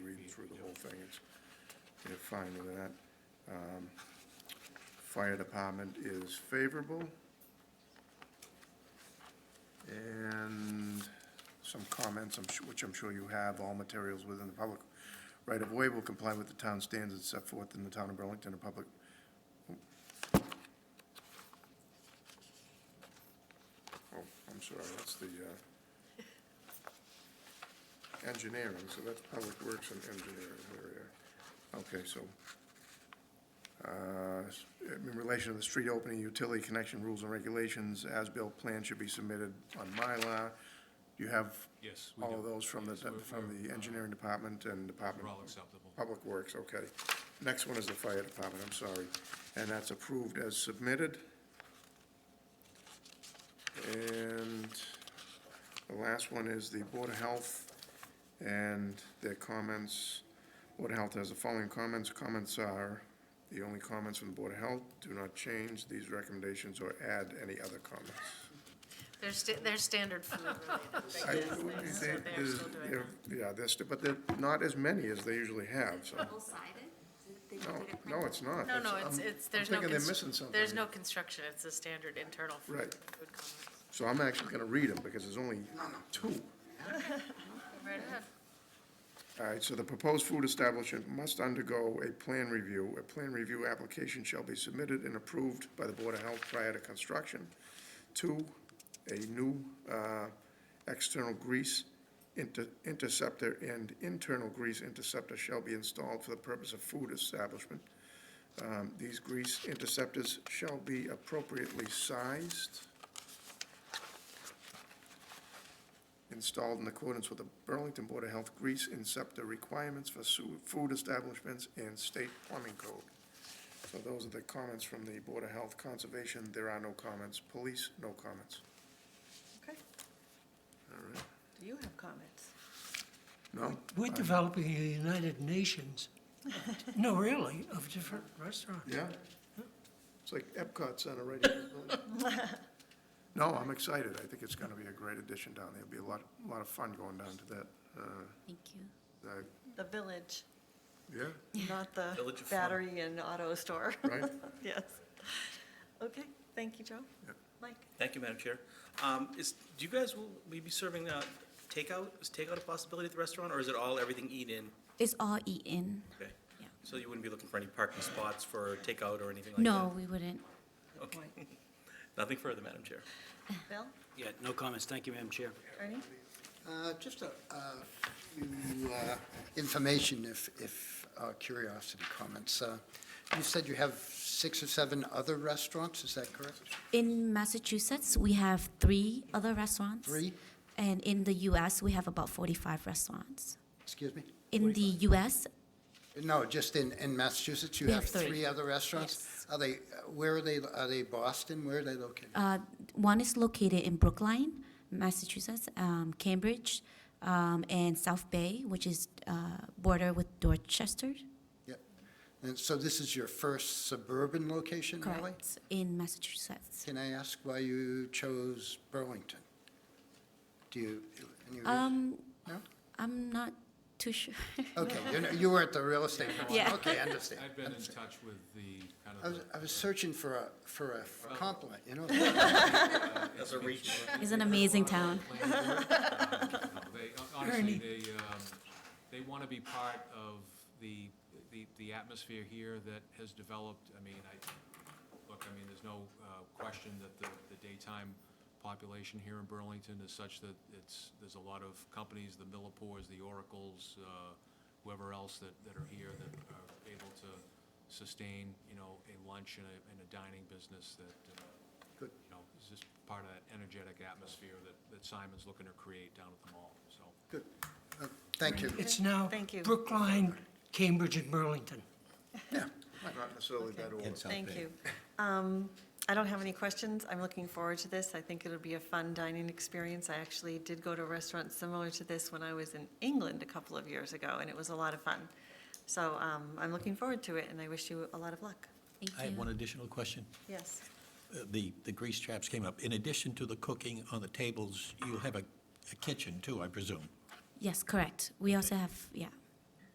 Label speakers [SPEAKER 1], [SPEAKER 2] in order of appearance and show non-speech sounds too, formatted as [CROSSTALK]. [SPEAKER 1] thing, it's, they're fine with that. Um, Fire department is favorable. And some comments, I'm su- which I'm sure you have, all materials within the public right-of-way will comply with the town standards set forth in the town of Burlington and public Oh, I'm sorry, that's the uh, engineering, so that's Public Works and Engineering, there we are. Okay, so, uh, s- in relation to the street opening, utility connection rules and regulations, as-built plan should be submitted on Mylar. Do you have
[SPEAKER 2] Yes, we
[SPEAKER 1] all of
[SPEAKER 2] do.
[SPEAKER 1] those from the,
[SPEAKER 2] Yes, we're-
[SPEAKER 1] from
[SPEAKER 2] we're,
[SPEAKER 1] the
[SPEAKER 2] uh,
[SPEAKER 1] engineering department and department?
[SPEAKER 2] We're all acceptable.
[SPEAKER 1] Public Works, okay. Next one is the fire department, I'm sorry. And that's approved as submitted. And the last one is the Board of Health and their comments. Board of Health has the following comments. Comments are, the only comments from the Board of Health do not change these recommendations or add any other comments.
[SPEAKER 3] They're, sta- they're standard food related
[SPEAKER 1] [LAUGHS]
[SPEAKER 3] things.
[SPEAKER 1] I-
[SPEAKER 3] They're
[SPEAKER 1] they-
[SPEAKER 3] still- they're still doing
[SPEAKER 1] they're- Yeah, there's, but they're not as many as they usually have, so.
[SPEAKER 4] Double-sided? They
[SPEAKER 1] No,
[SPEAKER 4] did it
[SPEAKER 1] no, it's not.
[SPEAKER 3] that. No, no,
[SPEAKER 1] I'm-
[SPEAKER 3] it's, it's, there's
[SPEAKER 1] I'm
[SPEAKER 3] no.
[SPEAKER 1] thinking
[SPEAKER 3] constr-
[SPEAKER 1] they're missing something.
[SPEAKER 3] There's no construction, it's a standard internal food.
[SPEAKER 1] Right.
[SPEAKER 3] food comments.
[SPEAKER 1] So I'm actually gonna read them, because there's only two.
[SPEAKER 3] Right ahead.
[SPEAKER 1] All right, so the proposed food establishment must undergo a plan review. A plan review application shall be submitted and approved by the Board of Health prior to construction. Two, a new uh, external grease inter- interceptor and internal grease interceptor shall be installed for the purpose of food establishment. Um, These grease interceptors shall be appropriately sized. installed in accordance with the Burlington Board of Health grease and SEPTA requirements for su- food establishments and state plumbing code. So those are the comments from the Board of Health. Conservation, there are no comments. Police, no comments.
[SPEAKER 5] Okay,
[SPEAKER 1] All right.
[SPEAKER 5] do you have comments?
[SPEAKER 1] No?
[SPEAKER 6] We're developing a United Nations, no, really, of different
[SPEAKER 1] [LAUGHS]
[SPEAKER 6] restaurants.
[SPEAKER 1] Yeah? It's like Epcot Center right here. No, I'm excited. I think it's gonna be a great addition down there. It'll be a lot, a lot of fun going down to that. uh,
[SPEAKER 4] Thank you.
[SPEAKER 1] that-
[SPEAKER 5] The village,
[SPEAKER 1] Yeah,
[SPEAKER 5] not the
[SPEAKER 7] Village of Fun.
[SPEAKER 5] battery and auto store. [LAUGHS]
[SPEAKER 1] right?
[SPEAKER 5] Yes. Okay, thank you, Joe.
[SPEAKER 1] Yep.
[SPEAKER 5] Mike?
[SPEAKER 7] Thank you, Madam Chair. Um, Is, do you guys, will we be serving uh, takeout? Is takeout a possibility at the restaurant, or is it all everything eat-in?
[SPEAKER 4] It's all E eaten.
[SPEAKER 7] Okay.
[SPEAKER 4] Yeah.
[SPEAKER 7] So you wouldn't be looking for any parking spots for takeout or anything like that?
[SPEAKER 4] No, we wouldn't.
[SPEAKER 7] Okay.
[SPEAKER 5] Mike.
[SPEAKER 7] [LAUGHS] Nothing further, Madam Chair.
[SPEAKER 5] Bill?
[SPEAKER 8] Yeah, no comments. Thank you, Madam Chair.
[SPEAKER 5] Ernie?
[SPEAKER 9] Uh, Just a a few uh, information, if, if uh, curiosity comments. Uh, You said you have six or seven other restaurants, is that correct?
[SPEAKER 4] In Massachusetts, we have three other restaurants.
[SPEAKER 9] Three?
[SPEAKER 4] And in the US, we have about 45 restaurants.
[SPEAKER 9] Excuse me?
[SPEAKER 4] In the US,
[SPEAKER 9] No, just in, in Massachusetts, you
[SPEAKER 4] We
[SPEAKER 9] have
[SPEAKER 4] have three.
[SPEAKER 9] three other restaurants?
[SPEAKER 4] Yes.
[SPEAKER 9] Are they, uh, where are they, are they Boston? Where are they located?
[SPEAKER 4] uh, one is located in Brookline, Massachusetts, um, Cambridge, um, and South Bay, which is uh, border with Dorchester.
[SPEAKER 9] Yep. And so this is your first suburban location, really?
[SPEAKER 4] Correct. In Massachusetts.
[SPEAKER 9] Can I ask why you chose Burlington? Do you, any reason?
[SPEAKER 4] Um,
[SPEAKER 9] No?
[SPEAKER 4] I'm not too sure. [LAUGHS]
[SPEAKER 9] Okay, you know- you were at the real estate one.
[SPEAKER 4] Yeah.
[SPEAKER 2] [LAUGHS]
[SPEAKER 9] Okay, understand.
[SPEAKER 2] I've been in
[SPEAKER 9] understand.
[SPEAKER 2] touch with the, kind
[SPEAKER 9] I was,
[SPEAKER 2] of,
[SPEAKER 9] I was searching for a, for a compliment, you know?
[SPEAKER 7] As a reach.
[SPEAKER 4] It's an amazing town.
[SPEAKER 2] the land board. Um, no, They, honestly, they, um, they want to be part of the, the, the atmosphere here that has developed. I mean, I, look, I mean, there's no uh, question that the, the daytime population here in Burlington is such that it's, there's a lot of companies, the Millipores, the Oracles, uh, whoever else that, that are here that are able to sustain, you know, a lunch and a, and a dining business that, uh,
[SPEAKER 9] Good.
[SPEAKER 2] you know, is just part of that energetic atmosphere that, that Simon's looking to create down at the mall, so.
[SPEAKER 9] Good. Uh, Thank you.
[SPEAKER 6] It's now
[SPEAKER 5] Thank you.
[SPEAKER 6] Brookline, Cambridge, and Burlington.
[SPEAKER 1] Not necessarily that order.
[SPEAKER 5] Thank you. Um, I don't have any questions. I'm looking forward to this. I think it'll be a fun dining experience. I actually did go to a restaurant similar to this when I was in England a couple of years ago, and it was a lot of fun. So um, I'm looking forward to it, and I wish you a lot of luck.
[SPEAKER 4] Thank
[SPEAKER 8] I
[SPEAKER 4] you.
[SPEAKER 8] have one additional question.
[SPEAKER 5] Yes.
[SPEAKER 8] Uh, The, the grease traps came up. In addition to the cooking on the tables, you have a a kitchen too, I presume?
[SPEAKER 4] Yes, correct. We also have, yeah,